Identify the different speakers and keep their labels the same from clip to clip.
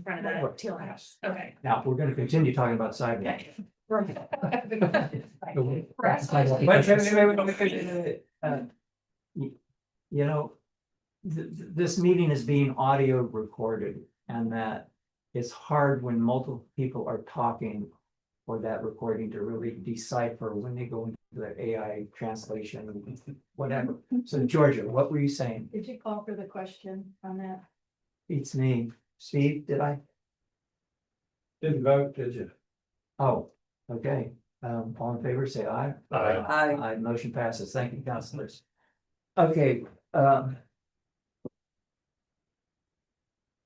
Speaker 1: in front of
Speaker 2: Right,
Speaker 1: that
Speaker 2: right.
Speaker 1: teal house, okay.
Speaker 2: Now, we're gonna continue talking about sidewalk.
Speaker 1: Okay. Right.
Speaker 2: Wait, wait, wait, wait, wait, wait, wait, wait, uh, You you know, th- th- this meeting is being audio recorded and that it's hard when multiple people are talking for that recording to really decipher when they go into the AI translation, whatever. So Georgia, what were you saying?
Speaker 3: Did you call for the question on that?
Speaker 2: It's me. Steve, did I?
Speaker 4: Didn't vote, did you?
Speaker 2: Oh, okay. Um, all in favor, say aye.
Speaker 4: Aye.
Speaker 5: Aye.
Speaker 2: Aye, motion passes. Thank you, councilors. Okay, um,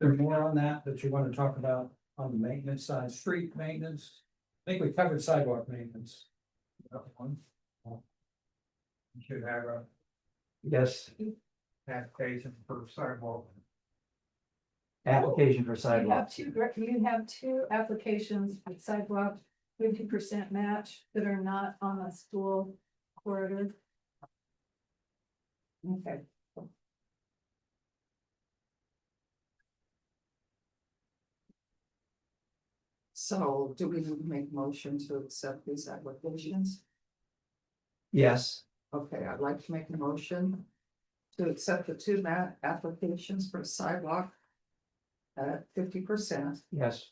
Speaker 4: There's more on that that you want to talk about on the maintenance side, street maintenance. I think we covered sidewalk maintenance. That one. You Should have uh, a
Speaker 2: yes,
Speaker 4: application for sidewalk.
Speaker 2: application for
Speaker 3: You
Speaker 2: sidewalk.
Speaker 3: have two, gr- you have two applications with sidewalk fifty percent match that are not on a school corridor.
Speaker 1: Okay.
Speaker 5: So do we need to make motion to accept these applications?
Speaker 2: Yes,
Speaker 5: Okay, I'd like to make a motion to accept the two ma- applications for sidewalk at fifty percent,
Speaker 2: yes,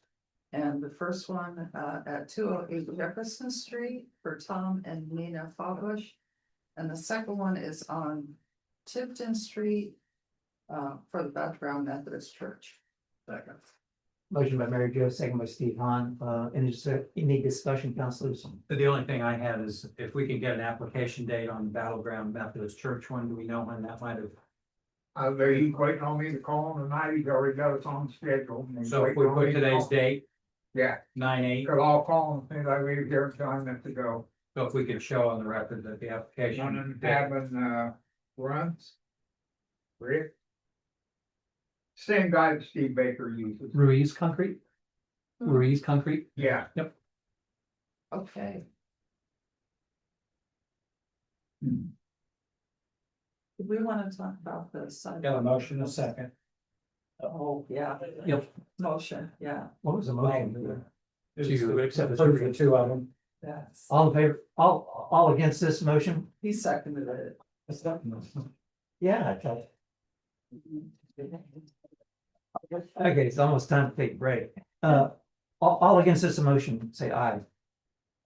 Speaker 5: and the first one uh, at two oh eight Jefferson Street for Tom and Nina Fawbush. And the second one is on Tipton Street uh, for the Beth Brown Methodist Church. Second.
Speaker 2: motion by Mary Jo, second by Steve Han, uh, any, dis- any discussion, councilors?
Speaker 4: The only thing I have is if we can get an application date on the Battleground Methodist Church one, do we know when that might have?
Speaker 6: Uh, they he's waiting on me to call him tonight, he's already got us on schedule. and he's
Speaker 4: So if
Speaker 6: waiting
Speaker 4: we
Speaker 6: on
Speaker 4: put
Speaker 6: me to
Speaker 4: today's
Speaker 6: call.
Speaker 4: date,
Speaker 6: Yeah,
Speaker 4: nine eight,
Speaker 6: cause I'll call him, as soon as I leave here, tell him that to go.
Speaker 4: so if we could show on the record that the
Speaker 6: One in
Speaker 4: application.
Speaker 6: having, uh, runs. Rick. Same guy that Steve Baker uses,
Speaker 2: Ruiz Concrete?
Speaker 4: Hmm.
Speaker 2: Ruiz Concrete?
Speaker 6: yeah,
Speaker 5: Okay.
Speaker 6: Hmm.
Speaker 5: Do we want to talk about the sidewalk?
Speaker 4: Got a motion, a second.
Speaker 5: Oh, yeah.
Speaker 2: Yep.
Speaker 5: Motion, yeah,
Speaker 2: What was the
Speaker 4: Um,
Speaker 2: motion? To accept the-
Speaker 4: Approve the two of them.
Speaker 5: yes.
Speaker 4: Uh,
Speaker 2: All in favor, all, all against this motion?
Speaker 5: He seconded it.
Speaker 2: Yeah. I thought- Okay, it's almost time to take a break. Uh, all, all against this motion, say aye.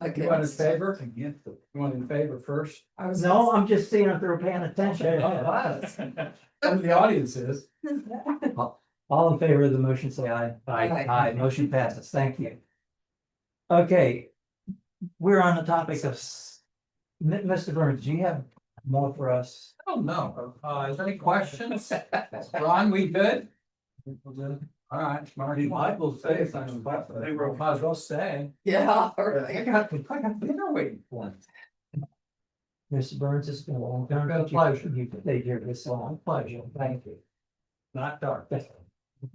Speaker 4: You want in
Speaker 5: Against.
Speaker 4: favor? Against it. You want in favor first?
Speaker 5: I was-
Speaker 2: No, I'm just seeing if they're paying attention.
Speaker 4: And the audience is.
Speaker 2: All in favor of the motion, say aye.
Speaker 5: Aye.
Speaker 2: Aye, motion passes, thank you. Okay, we're on the topic of, s- M- Mr. Burns, do you have more for us?
Speaker 4: Oh, no. Uh, is there any questions? Ron, we good? All right, Marty. I will say something, but they were, might as well say.
Speaker 5: Yeah, all right.
Speaker 4: got, I got dinner waiting for me.
Speaker 2: Mr. Burns, it's been a long time.
Speaker 4: Been a pleasure.
Speaker 2: You stayed here this long, pleasure, thank you.
Speaker 4: Not dark.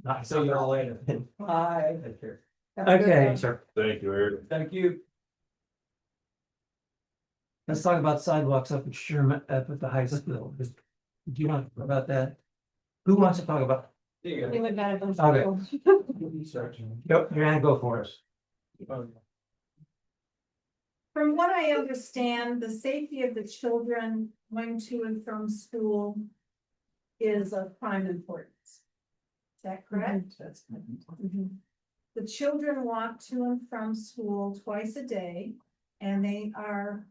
Speaker 2: Not
Speaker 4: See y'all later.
Speaker 5: Aye. Have a good
Speaker 2: Okay,
Speaker 5: one.
Speaker 7: Thank you, Eric.
Speaker 4: Thank you.
Speaker 2: let's talk about sidewalks up at Sherman, up at the high school. Do you want to talk about that? Who wants to talk about?
Speaker 4: Yeah.
Speaker 3: would not have been.
Speaker 2: Okay.
Speaker 4: Searching.
Speaker 2: Yep. You're gonna go for us.
Speaker 3: From what I understand, the safety of the children going to and from school is of prime importance. Is that correct?
Speaker 5: That's-
Speaker 3: The children walk to and from school twice a day, and they are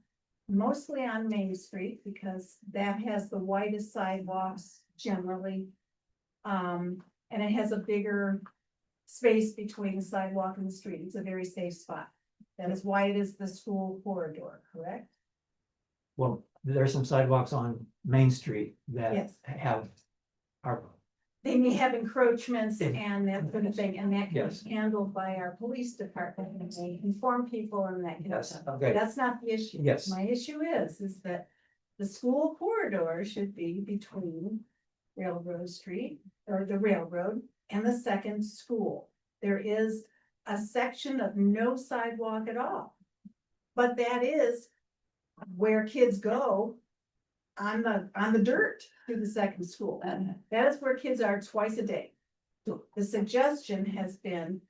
Speaker 3: mostly on Main Street because that has the widest sidewalks generally. Um, and it has a bigger space between the sidewalk and the street. It's a very safe spot. That is why it is the school corridor, correct?
Speaker 2: Well, there are some sidewalks on Main Street that
Speaker 3: Yes.
Speaker 2: have. Are,
Speaker 3: They may have encroachments
Speaker 2: Yeah.
Speaker 3: and that sort of thing, and that can
Speaker 2: Yes.
Speaker 3: be handled by our police department, and they inform people and that kind of
Speaker 2: yes,
Speaker 3: stuff.
Speaker 2: okay.
Speaker 3: That's not the issue.
Speaker 2: Yes.
Speaker 3: My issue is, is that the school corridor should be between Railroad Street or the railroad and the second school. There is a section of no sidewalk at all. But that is where kids go on the, on the dirt to the second school.
Speaker 5: And
Speaker 3: That is where kids are twice a day. The suggestion has been